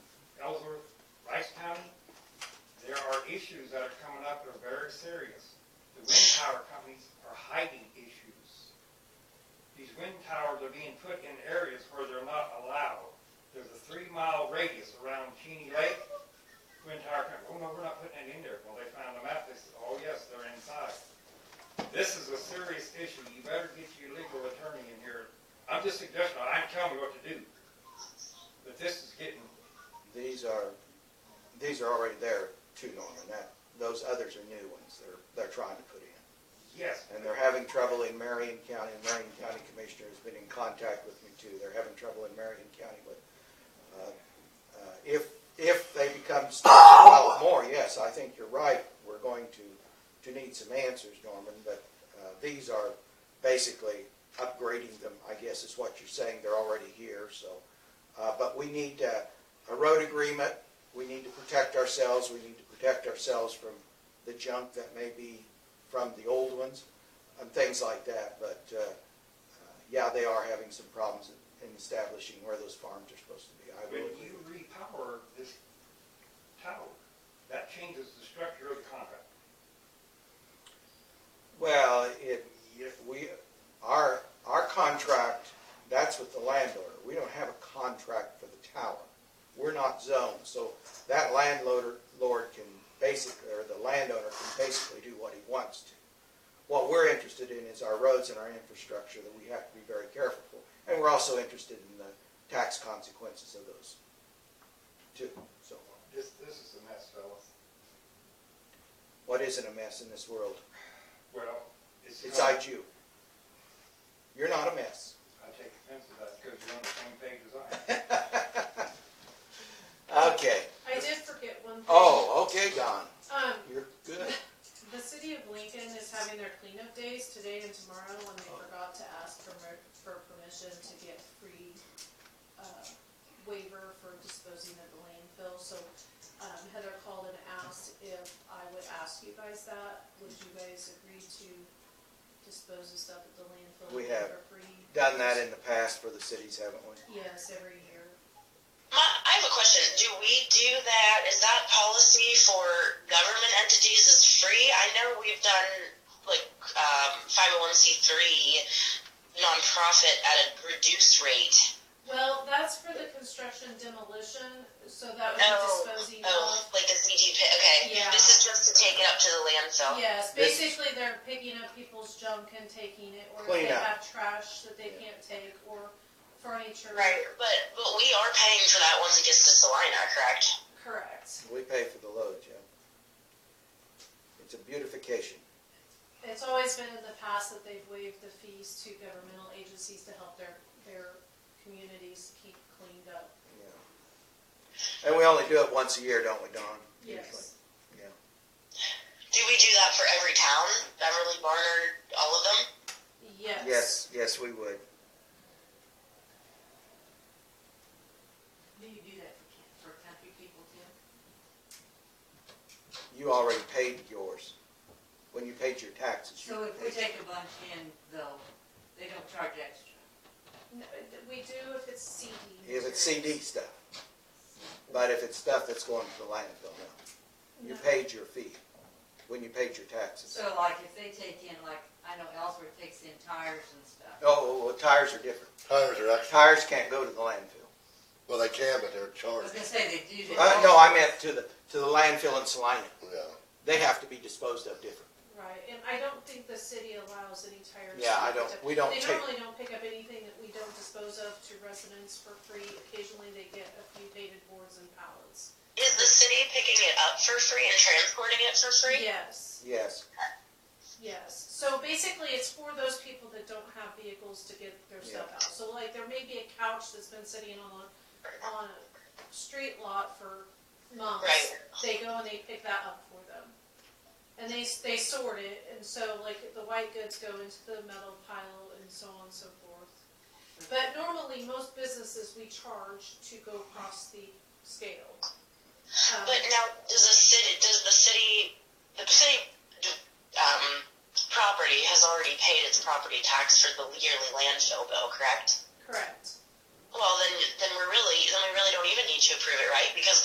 issues that are coming up are very serious. The wind tower companies are hiding issues. These wind towers are being put in areas where they're not allowed. There's a three-mile radius around Cheney Lake. Wind tower company, oh no, we're not putting it in there. Well, they found a map, they said, oh yes, they're inside. This is a serious issue. You better get your legal attorney in here. I'm just suggesting, I'm telling you what to do. But this is getting These are, these are already there too, Norman, that, those others are new ones they're, they're trying to put in. Yes, And they're having trouble in Marion County, and Marion County Commissioner has been in contact with me too, they're having trouble in Marion County with, uh, uh, if, if they become states develop more, yes, I think you're right, we're going to, to need some answers, Norman, but, uh, these are basically upgrading them, I guess is what you're saying, they're already here, so. Uh, but we need, uh, a road agreement, we need to protect ourselves, we need to protect ourselves from the junk that may be from the old ones, and things like that, but, uh, uh, yeah, they are having some problems in establishing where those farms are supposed to be, I when will agree you with repower this tower, that changes the structure of the contract. Well, it, if we, our, our contract, that's with the landowner. We don't have a contract for the tower. We're not zoned, so that landlord, lord can basically, or the landowner can basically do what he wants to. What we're interested in is our roads and our infrastructure that we have to be very careful for. And we're also interested in the tax consequences of those too, so. This, this is a mess, fellas. What isn't a mess in this world? Well, it's. It's IQ. You're not a mess. I take offense to that because you're on the same page as I am. Okay. I did forget one thing. Oh, okay, Don. Um, You're good. the city of Lincoln is having their cleanup days today and tomorrow, and they forgot to ask for, mer- for permission to get free, uh, waiver for disposing of the landfill, so, um, Heather called and asked if I would ask you guys that, would you guys agree to dispose of stuff at the landfill? We have. For free? Done that in the past for the cities, haven't we? Yes, every year. My, I have a question. Do we do that? Is that policy for government entities is free? I know we've done like um, 501c3 nonprofit at a reduced rate. Well, that's for the construction demolition, so that Oh, was disposing of. Oh, like the CG pit. Okay. Yeah. This is just to take it up to the landfill. Yes, This- basically they're picking up people's junk and taking it, or if Clean they up. have trash that they can't take, or furniture. Right. But but we are paying for that once it gets to Salina, correct? Correct. We pay for the load, yeah. It's a beautification. It's always been in the past that they've waived the fees to governmental agencies to help their, their communities keep cleaned up. Yeah. And we only do it once a year, don't we, Don? Usually. Yes. Do we do that for every town? Beverly, Barnard, all of them? Yes. Yes, yes, we would. Do you do that for, can- for country people too? You already paid yours. When you paid your taxes, you So if we paid- take a bunch in, though, they don't charge extra. No, We do if it's CD. if it's CD materials. stuff. But if it's stuff that's going to the landfill, no. You No. paid your fee when you paid your taxes. So like if they take in, like, I know Ellsworth takes in tires and stuff. Oh, well, tires are different. Tires are actually, Tires can't go to the landfill. well, they can, but they're I was charged, gonna say they do Uh, that. no, I meant to the, to the landfill in Salina. yeah. They have to be disposed of different. Right, and I don't think the city allows any tires. Yeah, I to be don't- picked up. we don't They take- normally don't pick up anything that we don't dispose of to residents for free. Occasionally they get a few dated boards and pallets. Is the city picking it up for free and transporting it for free? Yes, Yes, yes. So basically, it's for those people that don't have vehicles to get their stuff out. So like, there may be a couch that's been sitting on, a- on a street lot for months. Right. They go and they pick that up for them. And they, s- they sort it, and so like, the white goods go into the metal pile and so on and so forth. But normally, most businesses, we charge to go across the scale. Um, But now, does the city, does the city, the city, um, property has already paid its property tax for the yearly landfill bill, correct?